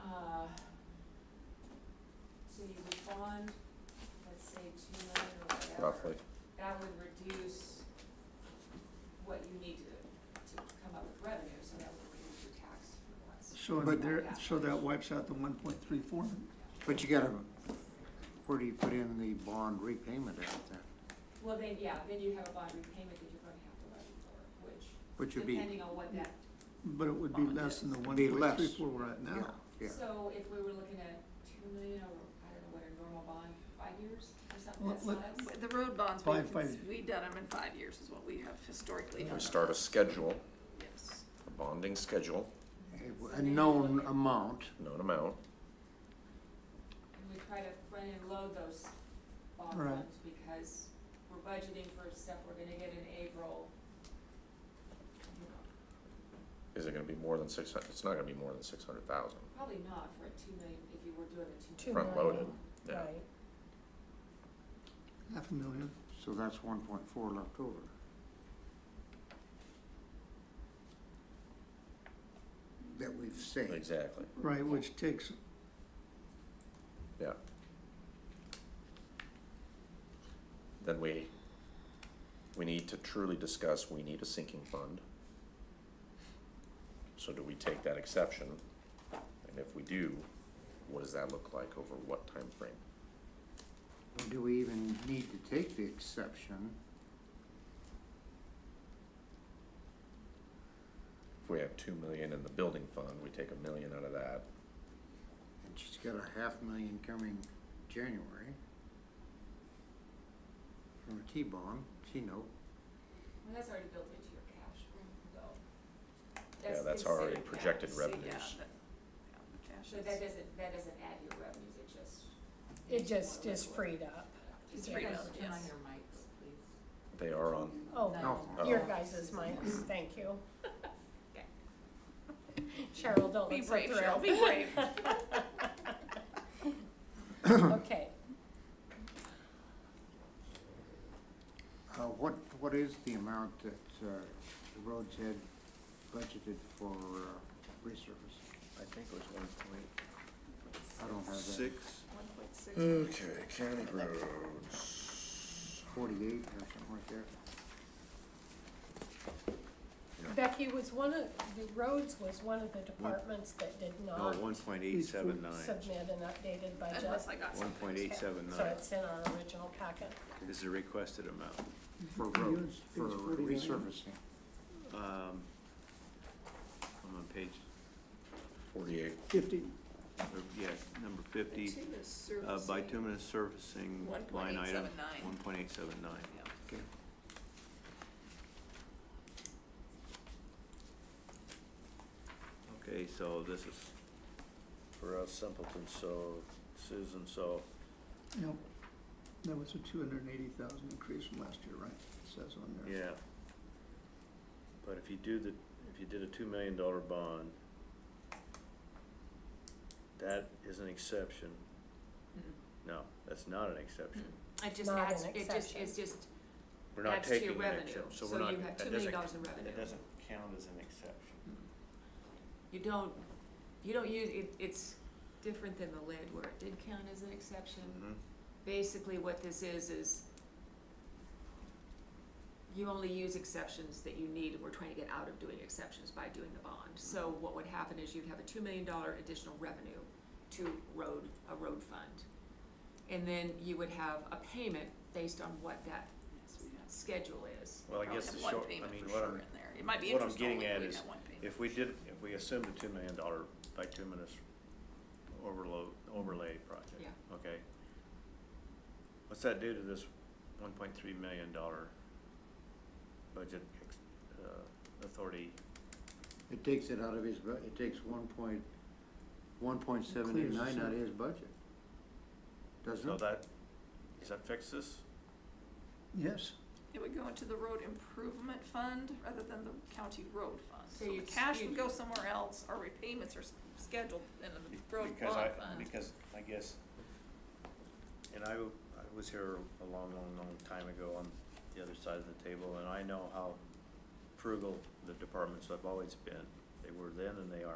Uh, So But- there, so that wipes out the one point three four? But you gotta, where do you put in the bond repayment at then? Well, then, yeah, then you have a bond repayment that you're gonna have to levy for, which, Which would be, depending on what that, But Oh, it would be less than the one Be point less. three four we're at yeah, now. yeah. so if we were looking at two million or, I don't know, what a normal bond, five years or something, Well, that's let- less. The road bonds, Five- we've, five- we've done them in five years is what we have historically done. We start a schedule, Yes. a bonding schedule, A- A known amount, known amount. And we try to front and load those bond Right. funds because we're budgeting for stuff we're gonna get in April. You know, Is it gonna be more than six hundred? It's not gonna be more than six hundred thousand. Probably not for a two million, if you were doing a two Two million. Front loaded, yeah. Right, Half a million. so that's one point four left over. That we've saved. Exactly. Right, which takes, Yeah. Then we, we need to truly discuss, we need a sinking fund. So do we take that exception? And if we do, what does that look like over what time frame? Do we even need to take the exception? If we have two million in the building fund, we take a million out of that. And she's got a half million coming January. From a T-bond, she know, Well, that's already built into your cash, though. Yeah, that's already considered cash. projected So, yeah, revenues. that- yeah, the cash So is- that doesn't, that doesn't add to your revenues, it just. it just is freed up. It's Yeah. free Yeah. to- yes. They are on, Oh, no, your Oh. guys' minds, thank you. Cheryl, don't Be look so brave, Cheryl, thrilled. be brave. Okay, Uh, what, what is the amount that, uh, the roads had budgeted for, uh, resurface? I think it was one point I don't have that, six. One point six. Mm. Okay, county roads. forty-eight or something like that? Becky, was one of, the roads was one of the departments that did not No, one point eight seven nine. submit an updated budget. Unless I got One something. point eight seven So nine it's in our original packet. is the requested amount. For It roads, was- it for was 49. resurfacing. Um, I'm on page, Forty-eight. fifty, or, yeah, number The fifty, two is uh, servicing. bituminous surfacing line item, 1.879. one point eight seven nine. Yeah. Okay, so this is for us simpleton, so Susan, so no. That was a two hundred and eighty thousand increase from last year, right? It Says on there. Yeah. But if you do the, if you did a two million dollar bond, that is an exception. No, that's not an exception. It just Not an adds, it just, exception. it's just, We're not adds to taking your an revenue, exception, so so we're not, you have two that million doesn't, dollars in revenue. that doesn't count as an exception. You don't, you don't use, it, it's different than the lid where it did count as an exception. Basically, what this is, is you only use exceptions that you need, and we're trying to get out of doing exceptions by doing the bond. So Mm-hmm. what would happen is you'd have a two million dollar additional revenue to road, a road fund. And then you would have a payment based on what that Yes, we have- schedule is. Well, we I guess have the one short, I payment mean, for what sure I'm, in there. It might be what I'm interest getting only, at we is got one payment. if we did, if we assumed a two million dollar bituminous overload, overlay project, Yeah. okay? What's that do to this one point three million dollar budget, ex- uh, authority? It takes it out of his, bu- it takes one point, one point seven eight nine out of his budget. Doesn't So it? that, does that fix this? Yes, It would go into the road improvement fund rather than the county road fund. So So the you'd- cash you'd- would go somewhere else, our repayments are s- scheduled in the road Because I, bond fund. because I guess, and I, w- I was here a long, long, long time ago on the other side of the table, and I know how frugal the departments have always been. They were then and they are